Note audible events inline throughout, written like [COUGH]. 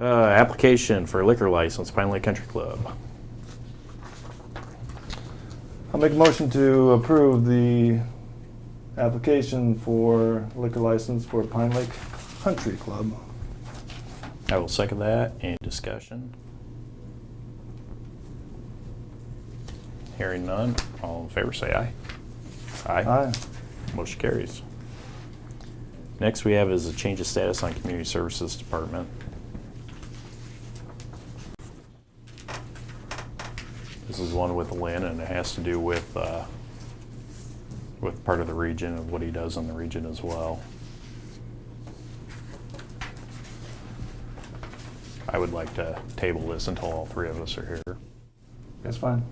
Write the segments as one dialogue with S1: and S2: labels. S1: Uh, application for liquor license, Pine Lake Country Club.
S2: I'll make a motion to approve the application for liquor license for Pine Lake Country Club.
S1: I will second that. Any discussion? Hearing none, all in favor say aye.
S2: Aye.
S1: Motion carries. Next we have is a change of status on Community Services Department. This is one with Lynn, and it has to do with, uh, with part of the region and what he does in the region as well. I would like to table this until all three of us are here.
S2: That's fine.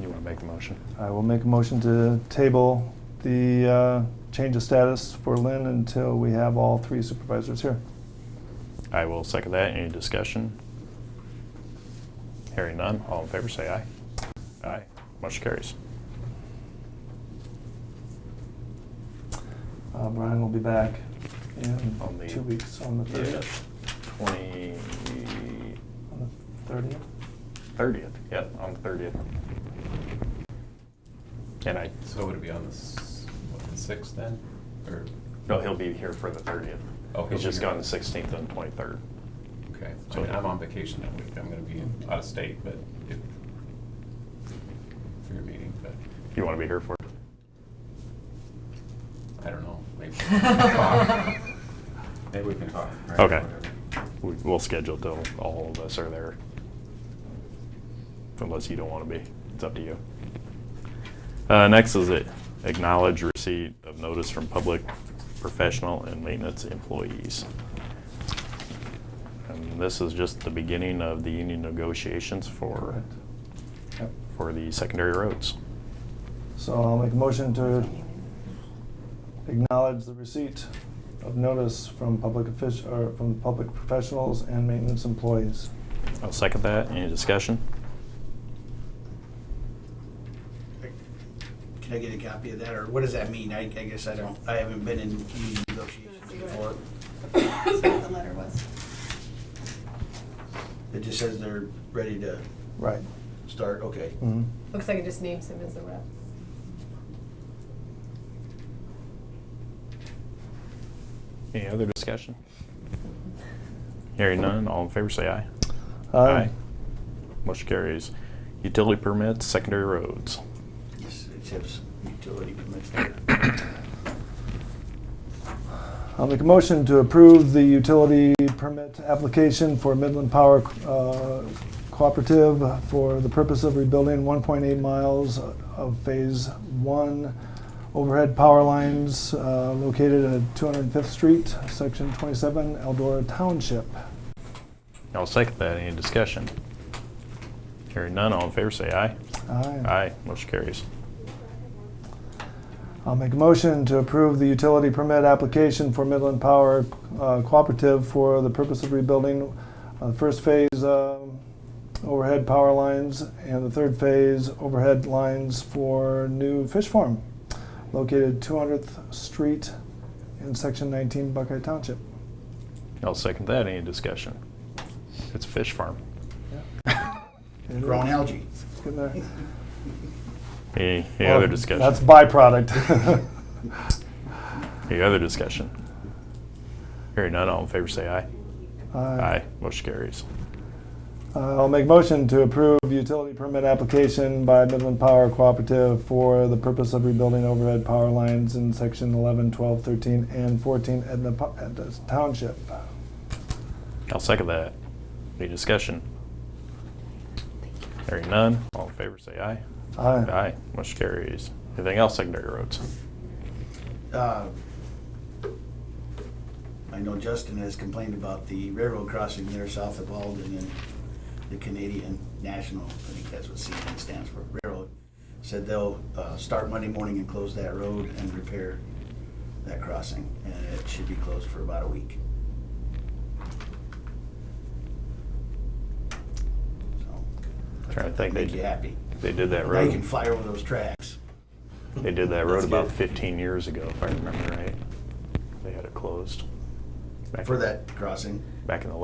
S1: You want to make the motion?
S2: I will make a motion to table the uh, change of status for Lynn until we have all three supervisors here.
S1: I will second that. Any discussion? Hearing none, all in favor say aye. Aye. Motion carries.
S2: Uh, Brian will be back
S1: On the-
S2: in two weeks, on the 30th.
S1: 20,
S2: On the 30th?
S1: 30th, yep, on the 30th. And I,
S3: So would it be on the, s- what, the sixth then, or?
S1: no, he'll be here for the 30th.
S3: Oh, he'll
S1: He's
S3: be
S1: just
S3: here.
S1: gone the 16th and 23rd.
S3: Okay, I
S1: So-
S3: mean, I'm on vacation that week, I'm gonna be in- out of state, but if, for your meeting, but
S1: You want to be here for it?
S3: I don't know, maybe. we can talk. Maybe we can talk. right,
S1: Okay.
S3: whatever.
S1: We- We'll schedule till all of us are there. Unless you don't want to be, it's up to you. Uh, next is it, acknowledge receipt of notice from public professional and maintenance employees. And this is just the beginning of the union negotiations for,
S2: Correct. Yep.
S1: for the secondary roads.
S2: So I'll make a motion to acknowledge the receipt of notice from public official, or from public professionals and maintenance employees.
S1: I'll second that. Any discussion?
S4: Can I get a copy of that, or what does that mean? I, I guess I don't, I haven't been in union negotiations before.
S5: That's what the letter was.
S4: It just says they're ready to
S2: Right.
S4: start, okay.
S2: Mhm.
S5: Looks like it just names him as the rep.
S1: Any other discussion? Hearing none, all in favor say aye.
S2: Aye.
S1: Motion carries. Utility permits, secondary roads.
S4: Yes, it says utility permits there.
S2: I'll make a motion to approve the utility permit application for Midland Power uh, Cooperative for the purpose of rebuilding 1.8 miles of Phase 1 overhead power lines uh, located at 205th Street, Section 27, Eldora Township.
S1: I'll second that. Any discussion? Hearing none, all in favor say aye. Aye, motion carries.
S2: I'll make a motion to approve the utility permit application for Midland Power uh, Cooperative for the purpose of rebuilding uh, the first phase um, overhead power lines and the third phase overhead lines for new fish farm located 200th Street in Section 19 Buckeye Township.
S1: I'll second that. Any discussion? It's a fish farm.
S4: Grown algae.
S2: It's getting there.
S4: [LAUGHS]
S1: Any, any other
S2: Well,
S1: discussion?
S2: That's byproduct. [LAUGHS]
S1: Any other discussion? Hearing none, all in favor say aye.
S2: Aye.
S1: Aye, motion carries.
S2: Uh, I'll make motion to approve utility permit application by Midland Power Cooperative for the purpose of rebuilding overhead power lines in section 11, 12, 13, and 14 Edna Po- Edna Township.
S1: I'll second that. Any discussion? Hearing none, all in favor say aye. Aye, motion carries. Anything else secondary roads?
S4: Uh, I know Justin has complained about the railroad crossing there south of Alden and the Canadian National, I think that's what CN stands for, railroad, said they'll uh, start Monday morning and close that road and repair that crossing, and it should be closed for about a week. So,
S1: Trying to think.
S4: Make
S1: they-
S4: you happy.
S1: They did that
S4: Now you can
S1: road.
S4: fly over those tracks.
S1: They did that road
S4: That's
S1: about
S4: good.
S1: 15 years ago, if I remember right. They had it closed. Back-
S4: For that crossing.
S1: Back in the